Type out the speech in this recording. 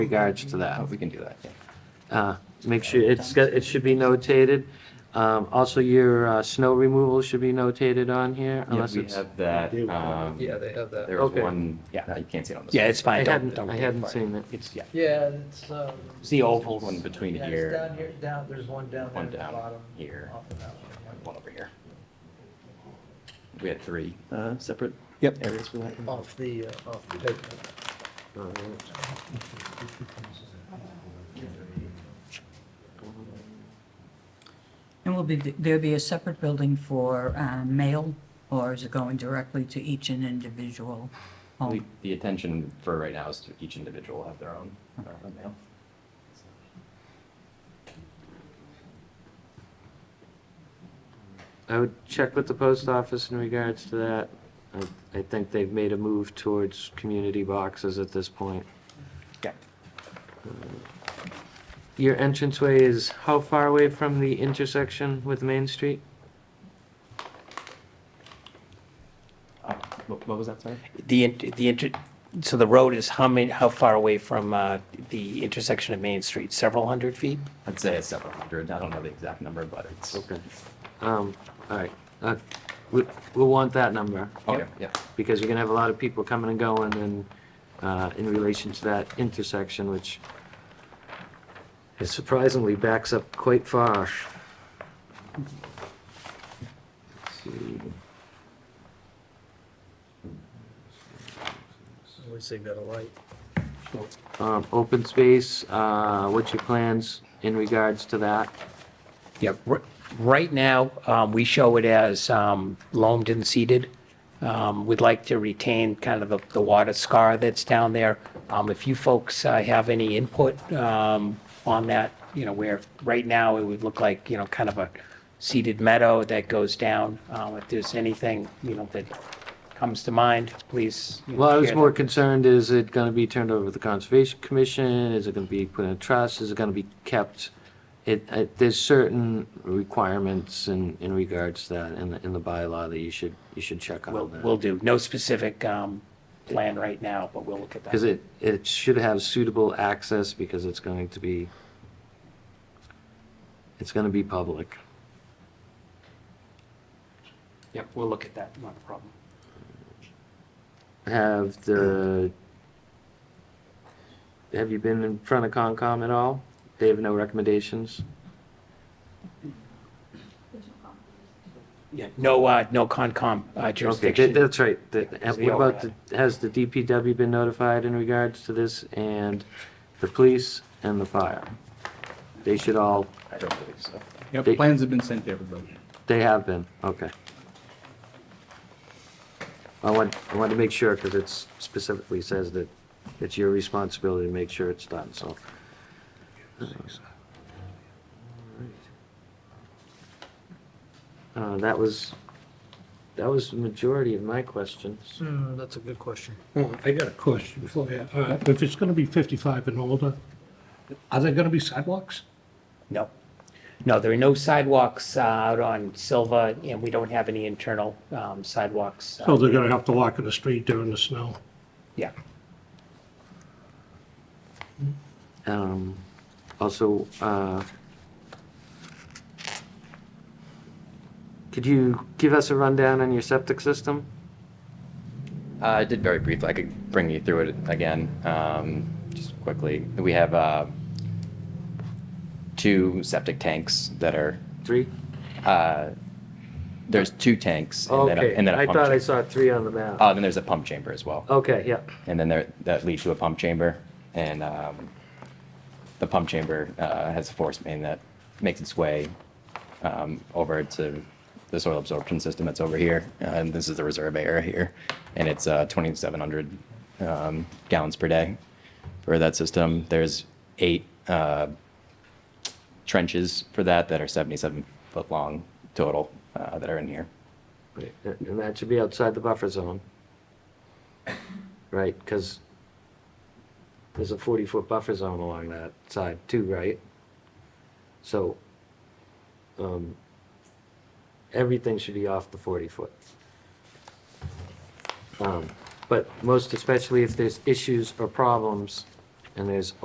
regards to that. We can do that, yeah. Uh, Make sure, it's, got- it should be notated. Um, Also, your uh, snow removal should be notated on here unless We it's. have that, um, Yeah, they have that. there was Okay. one, Yeah. you can't see it on this. Yeah, it's I fine. Don't, hadn't, don't. I worry hadn't about it. seen it. It's, yeah. Yeah, it's, um. It's the ovals. One between Yeah, it's here, down here, down, there's one down there one at the down bottom. here, off of that one. and one over here. We had three, uh, separate Yep. areas for that. Off the, uh, off the pavement. And will be, there be a separate building for uh, mail, or is it going directly to each and individual We- home? The attention for right now is to each individual have their own, their own mail. I would check with the post office in regards to that. I- I think they've made a move towards community boxes at this point. Uh, Okay. Your entranceway is how far away from the intersection with Main Street? Uh, What what was that, sorry? The, int- the, inter- so the road is how many, how far away from uh, the intersection of Main Street? Several hundred feet? I'd say it's several hundred, I don't know the exact number, but it's. Okay. Um, all right. Uh, we, we'll want that number. Okay, yeah. Because you're gonna have a lot of people coming and going and, uh, in relation to that intersection, which it surprisingly backs up quite far. Let's see. At least they've got a light. Um, open space, uh, what's your plans in regards to that? Yeah, r- right now, um, we show it as um, loamed and seeded. Um, We'd like to retain kind of the- the water scar that's down there. Um, If you folks uh, have any input um, on that, you know, where, right now, it would look like, you know, kind of a seeded meadow that goes down. Um, If there's anything, you know, that comes to mind, please. you know, Well, I was share more that. concerned, is it gonna be turned over to the Conservation Commission? Is it gonna be put in a trust? Is it gonna be kept? It, it, there's certain requirements in, in regards to that in the, in the bylaw that you should, you should check We'll, on we'll that. do. No specific um, plan right now, but we'll look at that. Cause it, it should have suitable access because it's going to be, it's gonna be public. Yep, we'll look at that. Not a problem. Have the, have you been in front of Concom at all? They have no recommendations? Yeah, no, uh, no Okay, Concom uh, that- jurisdiction. that's right. The- Is the What about, the- has the DPW been notified in regards to this and the police and the fire? They should all, I don't believe so. Yeah, They- plans have been sent to everybody. they have been, okay. I want, I want to make sure because it's specifically says that it's your responsibility to make sure it's done, so. Uh, that was, that was the majority of my questions. Hmm, that's a good question. Well, I got a question for you. Uh, If it's going to be 55 and older, are there going to be sidewalks? No. No, there are no sidewalks uh, out on Silva, and we don't have any internal um, sidewalks. uh, So Oh, they're going to have to walk in the street during the snow? Yeah. Um, also, uh, could you give us a rundown on your septic system? Uh, I did very briefly. I could bring you through it again, um, just quickly. We have uh, two septic tanks that are. Three? Uh, there's two tanks, and then a, Okay, and then a I pump. thought chamber. I saw three on the map. uh, then there's a pump chamber as well, Okay, yeah, and then there that leads to a pump chamber, and um, the pump chamber uh, has a force main that makes its way um, over to the soil absorption system that's over here, uh, and this is the reserve area here, and it's uh, 2,700 um, gallons per day for that system. There's eight uh, trenches for that that are 77 foot long total uh, that are in here. Right, and and that should be outside the buffer zone. Right, because there's a forty-foot buffer zone along that side too, right? So, um, everything should be off the forty-foot. Um, but most especially if there's issues or problems and there's